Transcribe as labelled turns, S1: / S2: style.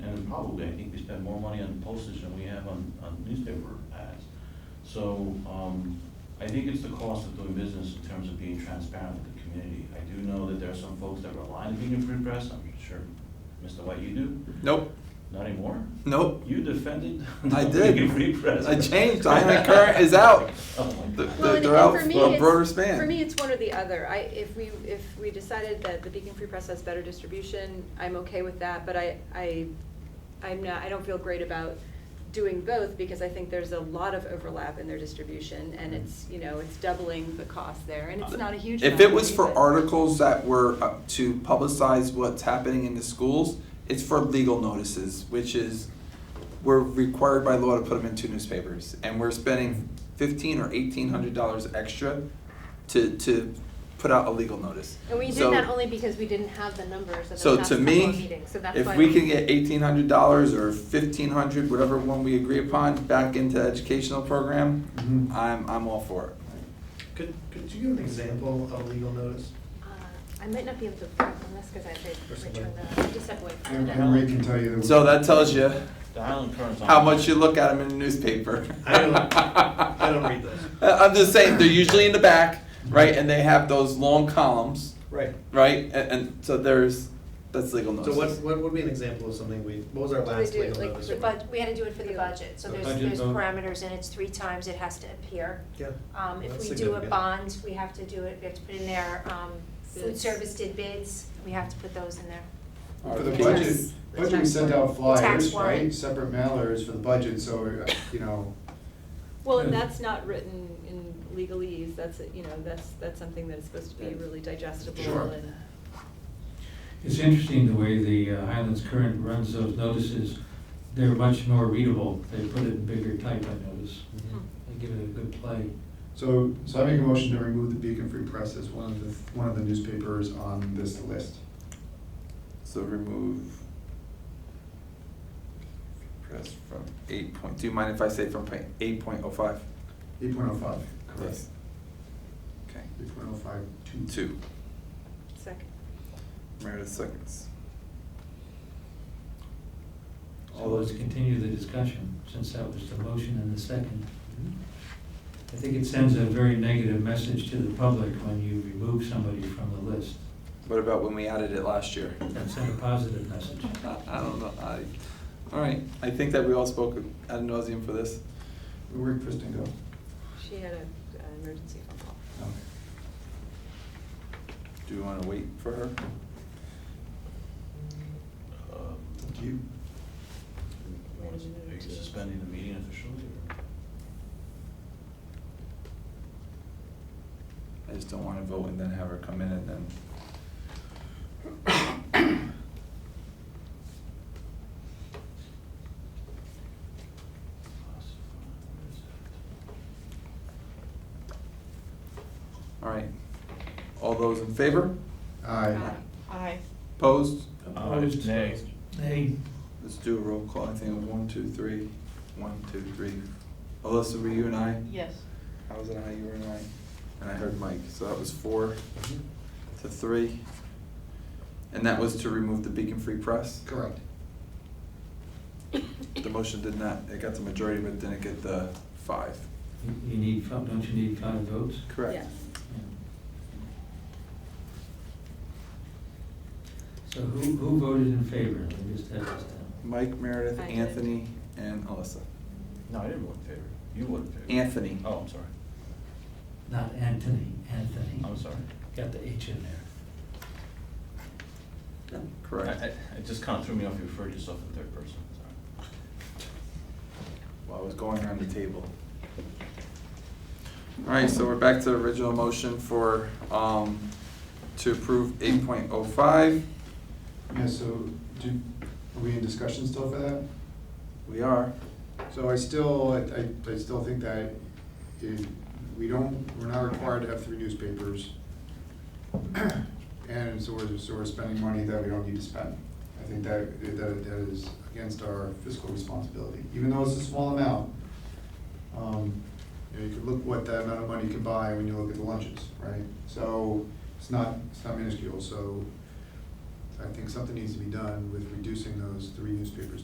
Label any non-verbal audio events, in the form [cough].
S1: probably, I think we spend more money on postage than we have on, on newspaper ads. So, um, I think it's the cost of doing business in terms of being transparent with the community. I do know that there are some folks that rely on being a free press, I'm sure, Mr. White, you do,
S2: Nope,
S1: not anymore?
S2: nope.
S1: You defended. [laughs]
S2: I did.
S1: being a free press.
S2: I changed. Diamond Current is out.
S1: [laughs] Oh my
S2: The-
S1: God.
S2: the-
S3: Well, and
S2: they're
S3: and
S2: out
S3: for me,
S2: for a
S3: it's-
S2: broader span.
S3: For me, it's one or the other. I, if we, if we decided that the Beacon Free Press has better distribution, I'm okay with that, but I, I, I'm not, I don't feel great about doing both because I think there's a lot of overlap in their distribution and it's, you know, it's doubling the cost there and it's not a huge.
S2: Mm-hmm. Uh, If it was
S3: amount,
S2: for
S3: but-
S2: articles that were uh, to publicize what's happening in the schools, it's for legal notices, which is, we're required by law to put them in two newspapers. And we're spending fifteen or eighteen hundred dollars extra to, to put out a legal notice.
S4: And we did
S2: So-
S4: that only because we didn't have the numbers at the
S2: So
S4: last
S2: to
S4: couple of
S2: me,
S4: meetings, so that's why.
S2: if we can get eighteen hundred dollars or fifteen hundred, whatever one we agree upon, back into educational program,
S5: Mhm.
S2: I'm, I'm all for it.
S5: Could, could you give an example of a legal notice?
S4: Uh, I might not be able to work on this because I did
S5: Or somebody.
S4: return the, uh, I just step away from it.
S5: Henry can tell you.
S2: So that tells you
S1: The Highland Current's on.
S2: how much you look at them in the newspaper.
S5: I don't, I don't read those.
S2: I- [laughs] I'm just saying, they're usually in the back, right, and they have those long columns,
S5: Right.
S2: right, and, and so there's, that's legal
S5: So
S2: notice.
S5: what, what would be an example of something we, what was our
S3: What do we
S5: last
S3: do,
S5: legal
S3: like,
S5: notice?
S3: the
S5: we-
S3: bud-
S6: But we had to do it for the budget, so
S5: The
S6: there's,
S5: budget
S6: there's
S5: vote.
S6: parameters and it's three times it has to appear.
S5: Yeah.
S6: Um, if
S5: That's
S6: we do a
S5: significant.
S6: bond, we have to do it, we have to put in there, um, food
S3: Bids.
S6: service did bids, we have to put those in there.
S7: For the
S2: Okay.
S7: budget,
S6: Yes.
S7: budget, we send out flyers,
S6: Tax warrant.
S7: right, separate mailers for the budget, so, uh, you know,
S3: Well, and that's not written in legalese, that's, you know, that's, that's something that is supposed to be really digestible
S7: Sure.
S3: and.
S8: It's interesting the way the uh, Highlands Current runs those notices. They're much more readable. They put it in bigger type, I notice.
S2: Mm-hmm.
S6: Mm-hmm.
S3: Hmm,
S8: They give it a good play.
S7: so, so I make a motion to remove the Beacon Free Press as one of the, one of the newspapers on this list.
S2: So remove press from eight point, do you mind if I say from point, eight point oh five?
S7: Eight point oh five, correct,
S2: Yes. Okay,
S7: eight point oh five, two.
S2: two,
S3: Second.
S2: Meredith seconds.
S8: So let's continue the discussion, since that was the motion and the second.
S7: Mm-hmm.
S8: I think it sends a very negative message to the public when you remove somebody from the list.
S2: What about when we added it last year?
S8: That sent a positive message.
S2: I, I don't know, I, all right, I think that we all spoke ad nauseum for this.
S7: Where'd Kristen go?
S3: She had a, an emergency phone call.
S7: Okay.
S2: Do we wanna wait for her?
S1: Um,
S7: Up to you.
S1: you want us- Are you suspending the meeting officially or?
S2: I just don't wanna vote and then have her come in and then. All right, all those in favor?
S7: Aye.
S3: Aye.
S2: Opposed?
S8: Opposed?
S1: Nay.
S8: Nay.
S2: Let's do a roll call, I think of one, two, three, one, two, three. Alyssa, were you and I?
S9: Yes.
S2: I was an I, you were an I, and I heard Mike, so that was four
S7: Mm-hmm.
S2: to three. And that was to remove the Beacon Free Press?
S7: Correct.
S2: The motion did not, it got the majority, but it didn't get the five.
S8: You- You need, five- don't you need five votes?
S2: Correct.
S3: Yes.
S8: So who, who voted in favor? Let me just have this down.
S2: Mike, Meredith,
S3: I did.
S2: Anthony, and Alyssa.
S1: No, I didn't vote in favor. You voted in favor.
S2: Anthony.
S1: Oh, I'm sorry.
S8: Not Anthony, Anthony.
S1: I'm sorry.
S8: Got the H in there.
S2: Correct.
S1: I- I- It just kind of threw me off. You referred yourself in third person, sorry.
S2: Well, I was going around the table. All right, so we're back to the original motion for, um, to approve eight point oh five.
S7: Yeah, so, do, are we in discussion still for that?
S2: We are.
S7: So I still, I- I, I still think that it, we don't, we're not required to have three newspapers. [clears throat] And so we're, so we're spending money that we don't need to spend. I think that, that, that is against our fiscal responsibility, even though it's a small amount. Um, You know, you could look what that amount of money can buy when you look at the lunches, right? So it's not, it's not minuscule, so I think something needs to be done with reducing those three newspapers